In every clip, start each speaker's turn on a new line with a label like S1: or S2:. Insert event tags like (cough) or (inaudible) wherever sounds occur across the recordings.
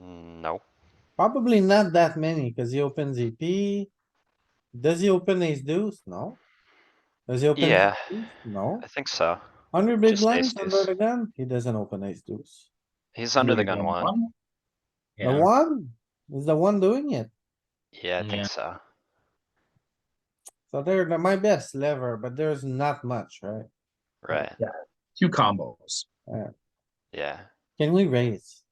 S1: Mm,
S2: Probably not that many, cuz he opens EP. Does he open ace deuce? No. Does he open? ace
S1: Yeah.
S2: deuce? No.
S1: I think so.
S2: Under big
S1: Just
S2: blinds,
S1: ace
S2: under
S1: deuce.
S2: the gun, he doesn't open ace deuce.
S1: He's under the gun one.
S2: The
S3: Yeah,
S2: one is the one doing it.
S1: Yeah, I
S3: Yeah.
S1: think so.
S2: So they're the- my best lever, but there's not much, right?
S1: Right,
S3: two combos.
S1: yeah.
S2: Can we raise?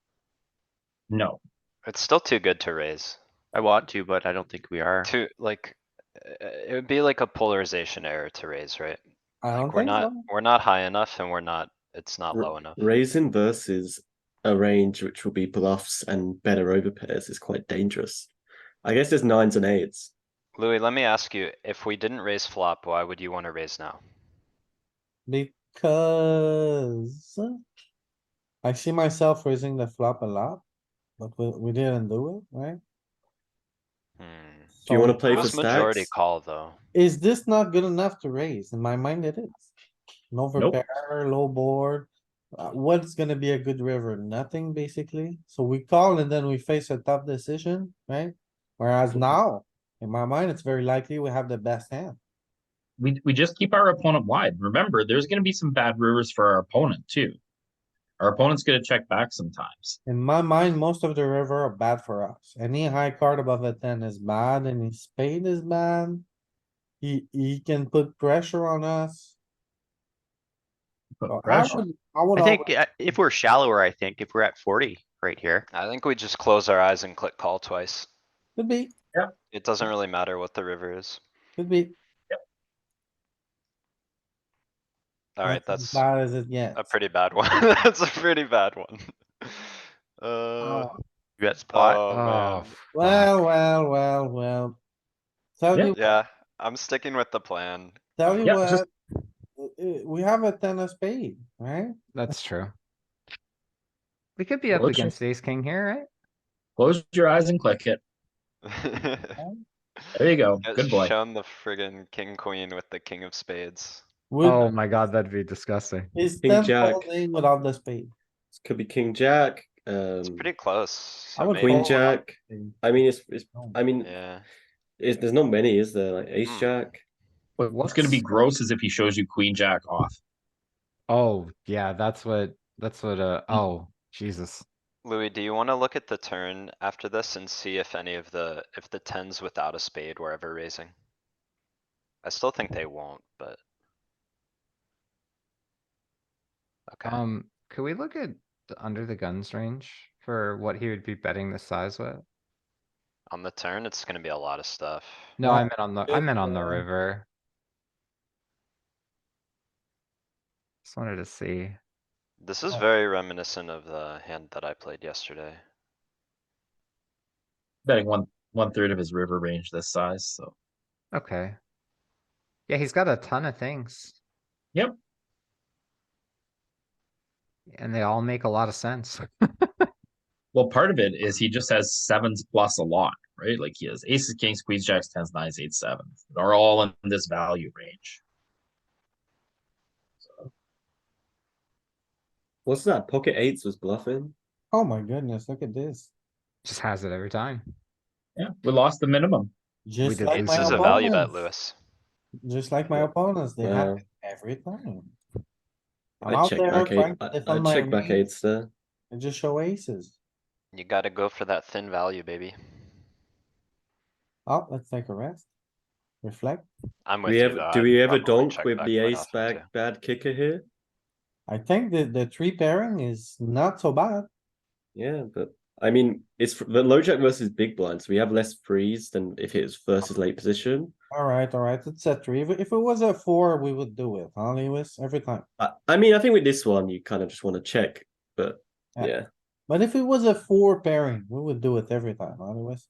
S3: No,
S1: It's still too good to raise.
S4: I want to, but I don't think we are.
S1: Too, like, uh, it would be like a polarization error to raise, right?
S2: I don't
S1: We're
S2: think
S1: not,
S2: so.
S1: we're not high enough and we're not, it's not
S5: R-
S1: low enough.
S5: Raising versus a range which will be bluffs and better overpairs is quite dangerous. I guess there's nines and eights.
S1: Louis, let me ask you, if we didn't raise flop, why would you wanna raise now?
S2: Because I see myself raising the flop a lot, but we, we didn't do it, right?
S1: Hmm.
S5: Do you want to
S2: So
S5: play for
S1: Most majority
S5: stacks?
S1: call, though.
S2: Is this not good enough to raise? In my mind, it is. An overpair, low board. Uh, What's gonna be a good river? Nothing, basically. So we call and then we face a tough decision, right? Whereas now, in my mind, it's very likely we have the best hand.
S3: we, we just keep our opponent wide. Remember, there's gonna be some bad rivers for our opponent too. Our opponent's gonna check back sometimes.
S2: In my mind, most of the river are bad for us. Any high card above a ten is bad, any spade is bad. He, he can put pressure on us.
S3: Put
S2: So I
S3: pressure.
S2: would- I would
S4: I think
S2: always-
S4: uh, if we're shallower, I think if we're at forty right here,
S1: I think we just close our eyes and click call twice.
S2: Could be,
S1: It doesn't really matter what the river is.
S2: could be.
S1: Alright,
S2: as
S1: that's
S2: Bad as it gets.
S1: a pretty bad one. (laughs) That's a pretty bad one. Uh,
S2: Oh,
S4: we got spot.
S1: oh, man.
S2: Well, well, well, well. Tell
S3: Yeah.
S2: you,
S1: Yeah, I'm sticking with the plan.
S2: tell you
S3: Yeah,
S2: what.
S3: just-
S2: uh, We have a ten of spade, right?
S6: That's true. We could be up
S3: Well, it's
S6: against ace king here, right?
S3: Close your eyes and click it.
S1: (laughs)
S3: There you go.
S1: Get
S3: Good boy.
S1: Shown the friggin' king queen with the king of spades.
S6: Oh
S2: Would,
S6: my god, that'd be disgusting.
S2: is
S5: King
S2: ten
S5: jack.
S2: folding without the spade?
S5: This could be king jack,
S1: It's
S5: um,
S1: pretty close.
S2: I
S1: so
S2: would
S1: maybe-
S5: queen
S2: fold without
S5: jack.
S2: the spade.
S5: I mean, it's, it's
S2: Oh.
S5: I mean,
S1: Yeah,
S5: it's, there's not many, is there? Like ace
S1: Hmm.
S5: jack.
S6: Wait, what's
S3: What's gonna be gross is if he shows you queen jack off.
S6: Oh, yeah, that's what, that's what, uh, oh, Jesus.
S1: Louis, do you wanna look at the turn after this and see if any of the, if the tens without a spade were ever raising? I still think they won't, but. Okay,
S6: Um, could we look at the under the guns range for what he would be betting the size with?
S1: on the turn, it's gonna be a lot of stuff.
S6: No, I meant on the, I
S5: it,
S6: meant on the
S5: um,
S6: river. Just wanted to see.
S1: This is
S2: Oh.
S1: very reminiscent of the hand that I played yesterday.
S3: Betting one, one third of his river range this size, so.
S6: Okay. Yeah, he's got a ton of things.
S3: Yep.
S6: And they all make a lot of sense. (laughs)
S3: Well, part of it is he just has sevens plus a lot, right? Like he has aces, kings, queens, jacks, tens, nines, eights, sevens. They're all in this value range.
S5: What's that? Pocket eights was bluffing.
S2: Oh my goodness, look at this.
S6: Just has it every time.
S3: Yeah, we lost the minimum.
S5: (laughs)
S2: Just
S6: did
S2: like
S1: Ace
S2: my
S1: is a value bet,
S2: opponents,
S1: Louis.
S2: just like my opponents, they
S5: Wow.
S2: have it every time. I'm
S5: I
S2: out
S5: check
S2: there
S5: back eight.
S2: trying to
S5: I
S2: defend my
S5: I check back
S2: range
S5: eights there.
S2: And just show aces.
S1: You gotta go for that thin value, baby.
S2: Oh, let's take a rest. Reflect.
S1: I'm with
S5: We
S1: you.
S5: have,
S1: though,
S5: do
S1: I'd
S5: we ever
S1: probably
S5: donk
S1: check
S5: with
S1: back
S5: the
S1: quite
S5: ace
S1: often,
S5: back
S1: too.
S5: bad kicker here?
S2: I think that the three pairing is not so bad.
S5: Yeah, but I mean, it's fr- the low jack versus big blind, so we have less freeze than if it was versus late position.
S2: Alright, alright, it's a three. If, if it was a four, we would do it, huh, Lewis? Every time.
S5: I, I mean, I think with this one, you kind of just want to check, but
S2: Yeah.
S5: yeah,
S2: But if it was a four pairing, we would do it every time, huh, Lewis?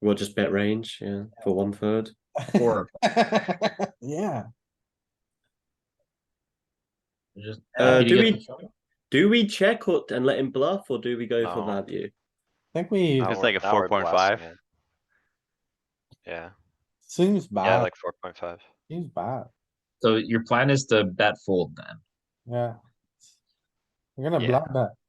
S5: we'll just bet range, yeah, for one third.
S3: Or
S2: (laughs) Yeah,
S3: just.
S5: Uh,
S3: Did
S5: do
S3: you get
S5: we-
S3: the shot?
S5: Do we check or, and let him bluff, or do we go
S1: No.
S5: for value?
S2: I think we,
S1: Now
S4: It's
S1: we're-
S4: like a
S1: now we're
S4: 4.5.
S1: blasting it. Yeah,
S2: seems
S1: yeah,
S2: bad,
S1: like four point five.
S2: seems bad,
S3: So your plan is to bet fold then?
S2: yeah. We're gonna
S4: Yeah.
S2: block that.